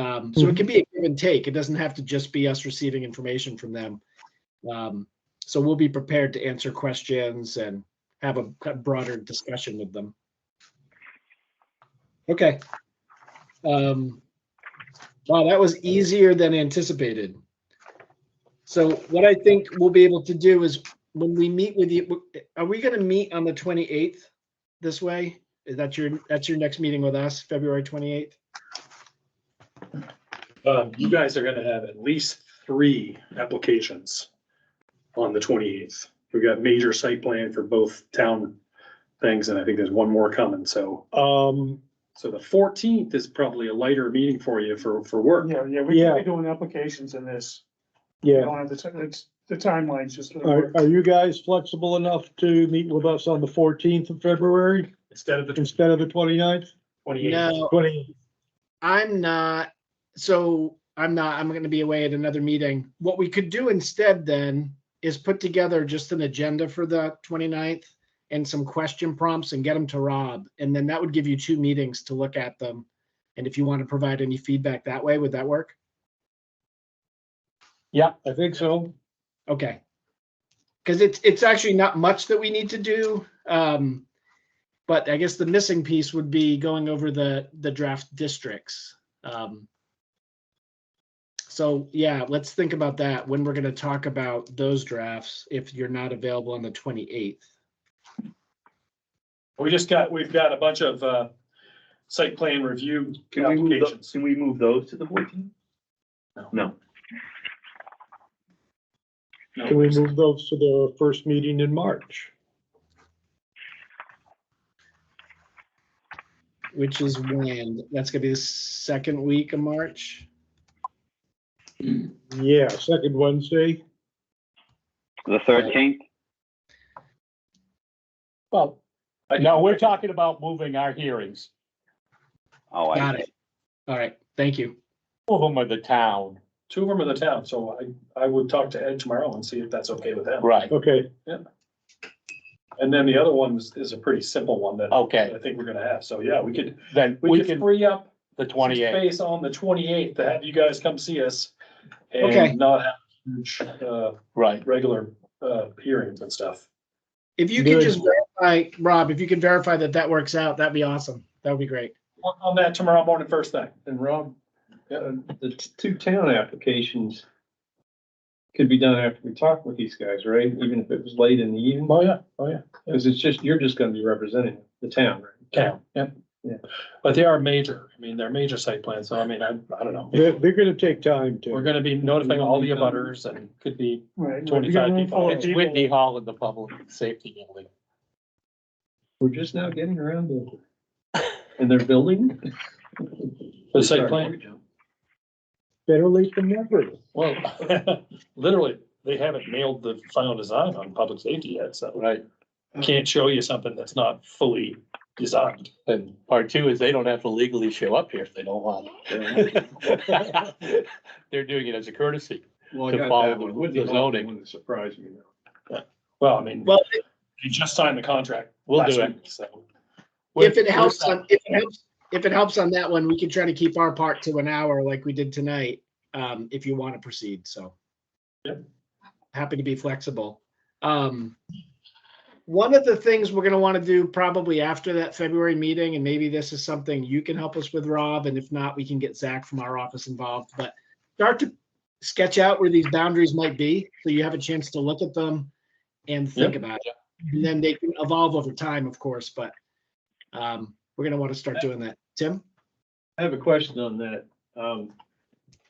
Um, so it can be a give and take. It doesn't have to just be us receiving information from them. Um, so we'll be prepared to answer questions and have a kind of broader discussion with them. Okay. Um, wow, that was easier than anticipated. So what I think we'll be able to do is when we meet with you, are we going to meet on the 28th this way? Is that your, that's your next meeting with us, February 28th? Um, you guys are gonna have at least three applications on the twenty-eighth. We've got major site plan for both town things, and I think there's one more coming, so. Um, So the fourteenth is probably a lighter meeting for you for, for work. Yeah, yeah, we can Yeah. be doing applications in this. We yeah, don't have the, ti- it's, the timeline's just. gonna are, work. are you guys flexible enough to meet with us on the fourteenth of February Instead of the instead of the 29th? twenty-eighth, No, Twenty, I'm not, so I'm not, I'm gonna be away at another meeting. What we could do instead then is put together just an agenda for the 29th and some question prompts and get them to Rob. And then that would give you two meetings to look at them. And if you want to provide any feedback that way, would that work? yeah, I think so. Okay. Because it's, it's actually not much that we need to do. Um, but I guess the missing piece would be going over the, the draft districts. Um, so yeah, let's think about that when we're going to talk about those drafts if you're not available on the 28th. we just got, we've got a bunch of, uh, site plan review Can we move, tho- applications. can we move those to the fourteen? No. No, Can we move those to the first meeting in March? Which is when, that's gonna be the second week of March. Yeah, second Wednesday. The thirteenth? Well, no, we're talking about moving our hearings, Oh, I Got see. it. All right, thank you. two of them are the town, Two of them are the town, so I, I would talk to Ed tomorrow and see if that's okay with them. right, Okay, And then the other one is, is a pretty simple one that okay, I think we're gonna have, so yeah, we could, then we we could can, free up the some twenty-eighth, Space on the twenty-eighth to have you guys come see us Okay. and not have huge, uh, right, regular, uh, hearings and stuff. If you can Good. just verify, Rob, if you can verify that that works out, that'd be awesome. That would be great. On- On that tomorrow morning, first thing. and Rob, uh, the t- two town applications could be done after we talk with these guys, right? Even if it was late in the evening, Oh, yeah, oh, yeah. because it's just, you're just gonna be representing the town, right? Yeah, yeah. Yeah. But they are major, I mean, they're major site plans, so I mean, I, I don't know. they're, they're gonna take time We're to, gonna be notifying all the abutters and could be Right. twenty-five people. it's Whitney Hall in the public safety building. We're just now getting around to, and they're building. The site plan, better late than never. well, literally, they haven't nailed the final design on public safety yet, so Right, Mm. I can't show you something that's not fully designed. and part two is they don't have to legally show up here if they don't want. to. They're doing it as a courtesy, Well, I To got follow that the- one. Wouldn't the the zoning. One that surprised me though. Well, I mean. Well, You just signed the contract. We'll do last it. week, So. if it helps on, if it helps, if it helps on that one, we can try to keep our part to an hour like we did tonight, um, if you want to proceed, so. Yep. Happy to be flexible. Um, one of the things we're gonna want to do probably after that February meeting, and maybe this is something you can help us with, Rob, and if not, we can get Zach from our office involved, but start to sketch out where these boundaries might be, so you have a chance to look at them and think about it. And then they can evolve over time, of course, but um, we're gonna want to start doing that. Tim? I have a question on that. Um,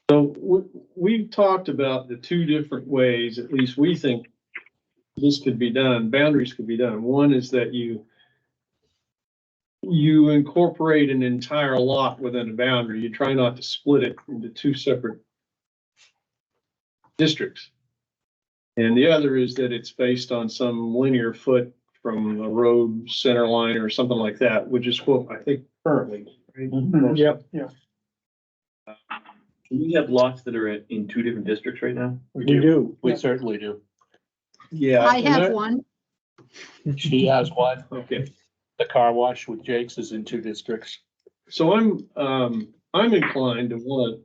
so we, we've talked about the two different ways, at least we think this could be done, boundaries could be done. One is that you you incorporate an entire lot within a boundary. You try not to split it into two separate districts. And the other is that it's based on some linear foot from a road center line or something like that, which is what I think currently. right? Yep, We have lots that are in two different districts right now. we do. we certainly do, Yeah. I have and one. she has one, that- Okay, the car wash with Jake's is in two districts. so I'm, um, I'm inclined to want